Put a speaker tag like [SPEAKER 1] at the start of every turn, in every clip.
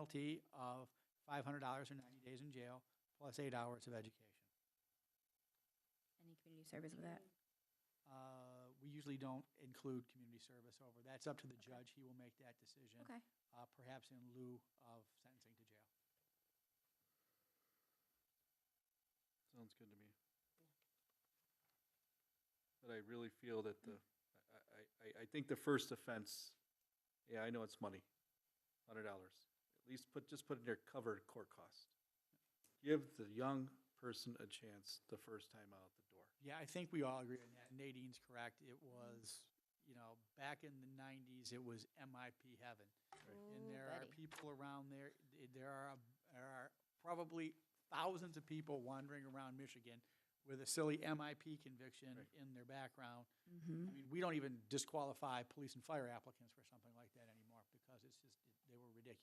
[SPEAKER 1] penalty of five hundred dollars or ninety days in jail, plus eight hours of education.
[SPEAKER 2] Any community service with that?
[SPEAKER 1] Uh, We usually don't include community service over, that's up to the judge, he will make that decision.
[SPEAKER 2] Okay.
[SPEAKER 1] uh, Perhaps in lieu of sentencing to jail.
[SPEAKER 3] Sounds good to me. But I really feel that the, I, I- I, I think the first offense, yeah, I know it's money, hundred dollars. At least put, just put in there covered court cost. Give the young person a chance the first time out the door.
[SPEAKER 1] Yeah, I think we all agree on that. Nadine's correct. It was, you know, back in the nineties, it was MIP heaven. And
[SPEAKER 2] Ooh,
[SPEAKER 1] there are
[SPEAKER 2] buddy.
[SPEAKER 1] people around there, there are, there are probably thousands of people wandering around Michigan with a silly MIP conviction
[SPEAKER 3] Right.
[SPEAKER 1] in their background. I
[SPEAKER 2] Mm-hmm.
[SPEAKER 1] mean, we don't even disqualify police and fire applicants for something like that anymore because it's just, they were ridiculous.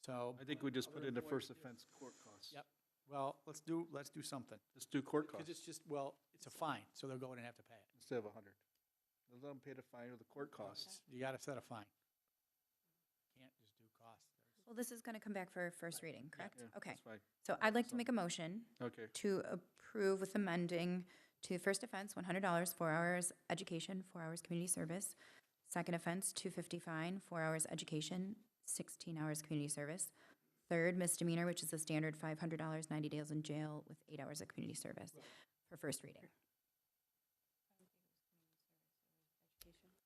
[SPEAKER 1] So,
[SPEAKER 3] I think we just put in the first offense court cost.
[SPEAKER 1] yep. Well, let's do, let's do something.
[SPEAKER 3] Just do court
[SPEAKER 1] Because it's
[SPEAKER 3] cost
[SPEAKER 1] just, well, it's a fine, so they'll go in and have to pay it.
[SPEAKER 3] instead of a hundred. Let them pay the fine or the court costs.
[SPEAKER 1] You gotta set a fine. Can't just do costs. There's-
[SPEAKER 2] Well, this is going to come back for first reading, correct?
[SPEAKER 3] Yeah,
[SPEAKER 2] Okay.
[SPEAKER 3] That's fine.
[SPEAKER 2] So I'd like to make a motion
[SPEAKER 3] Okay,
[SPEAKER 2] to approve with amending to first offense, one hundred dollars, four hours education, four hours community service. Second offense, two fifty fine, four hours education, sixteen hours community service. Third misdemeanor, which is the standard five hundred dollars, ninety days in jail with eight hours of community service for first reading.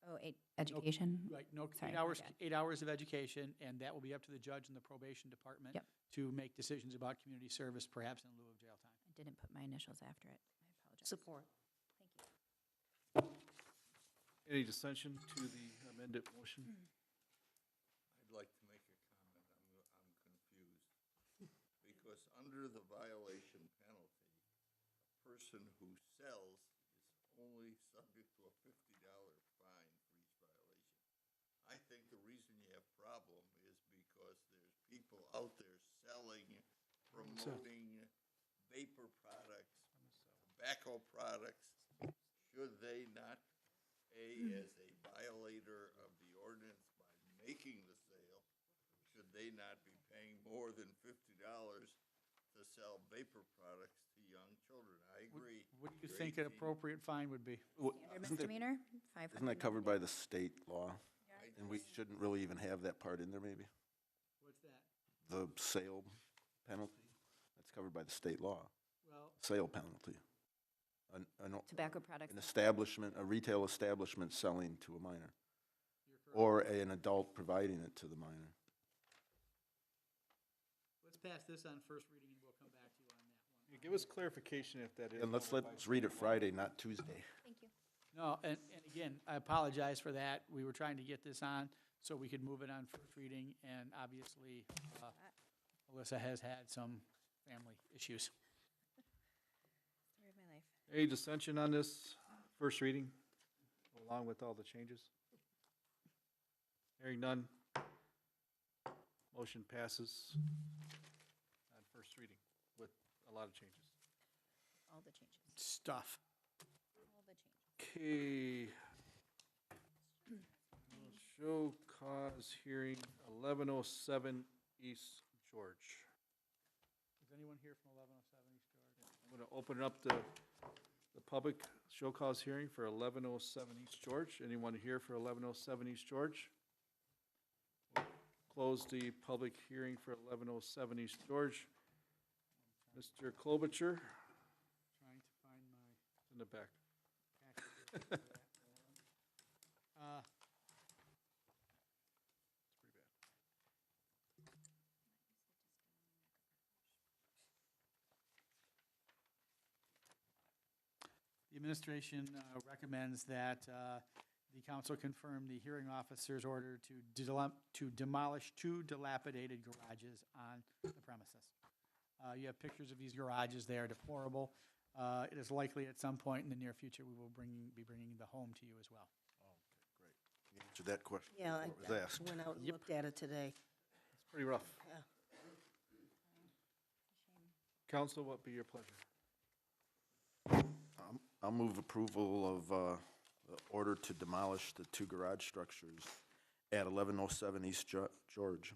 [SPEAKER 2] Oh, eight, education?
[SPEAKER 1] Right, no,
[SPEAKER 2] Sorry,
[SPEAKER 1] eight
[SPEAKER 2] my
[SPEAKER 1] hours,
[SPEAKER 2] bad.
[SPEAKER 1] eight hours of education, and that will be up to the judge and the probation department
[SPEAKER 2] Yep.
[SPEAKER 1] to make decisions about community service, perhaps in lieu of jail time.
[SPEAKER 2] I didn't put my initials after it. I apologize.
[SPEAKER 4] Support.
[SPEAKER 2] Thank you.
[SPEAKER 3] any dissension to the amended motion?
[SPEAKER 5] I'd like to make a comment. I'm, I'm confused. Because under the violation penalty, a person who sells is only subject to a fifty dollar fine for each violation. I think the reason you have problem is because there's people out there selling, promoting vapor products, tobacco products. Should they not a, as a violator of the ordinance by making the sale, should they not be paying more than fifty dollars to sell vapor products to young children? I agree.
[SPEAKER 1] What do you
[SPEAKER 5] You're
[SPEAKER 1] think an
[SPEAKER 5] 18.
[SPEAKER 1] appropriate fine would be?
[SPEAKER 2] Standard misdemeanor, five
[SPEAKER 6] Isn't that covered by the state law?
[SPEAKER 5] I
[SPEAKER 6] And we shouldn't really even have that part in there, maybe?
[SPEAKER 1] What's that?
[SPEAKER 6] The sale penalty? That's covered by the state law,
[SPEAKER 1] Well,
[SPEAKER 6] sale penalty. An, an,
[SPEAKER 2] Tobacco products.
[SPEAKER 6] an establishment, a retail establishment selling to a minor,
[SPEAKER 1] you're correct.
[SPEAKER 6] or an adult providing it to the minor.
[SPEAKER 1] Let's pass this on first reading, and we'll come back to you on that one.
[SPEAKER 3] Yeah, Give us clarification if that is.
[SPEAKER 6] And let's, let's read it Friday, not Tuesday.
[SPEAKER 2] Thank you.
[SPEAKER 1] No, and, and again, I apologize for that. We were trying to get this on so we could move it on first reading, and obviously, uh, Alyssa has had some family issues.
[SPEAKER 2] Story of my life.
[SPEAKER 3] Any dissension on this first reading, along with all the changes? Hearing none. Motion passes on first reading with a lot of changes.
[SPEAKER 2] All the changes.
[SPEAKER 1] Stuff.
[SPEAKER 2] All the changes.
[SPEAKER 3] Okay. Show cause hearing eleven oh seven East George.
[SPEAKER 1] Is anyone here from 1107 East George?
[SPEAKER 3] I'm going to open up the, the public show cause hearing for 1107 East George. Anyone here for 1107 East George? Close the public hearing for 1107 East George. Mr. Klobuchar
[SPEAKER 1] Trying to find my
[SPEAKER 3] in the back.
[SPEAKER 1] packet. for that one. Uh,
[SPEAKER 3] It's pretty bad.
[SPEAKER 1] The administration uh, recommends that uh, the council confirm the hearing officer's order to delem- to demolish two dilapidated garages on the premises. Uh, You have pictures of these garages, they are deplorable. Uh, It is likely at some point in the near future, we will bring, be bringing the home to you as well.
[SPEAKER 6] Answer that question.
[SPEAKER 4] Yeah, I
[SPEAKER 6] before it was asked.
[SPEAKER 4] I went out and looked at it today.
[SPEAKER 3] It's pretty rough. Council, what be your pleasure?
[SPEAKER 6] I'll move approval of uh, the oh order to demolish the two garage structures at 1107 East Jo- George.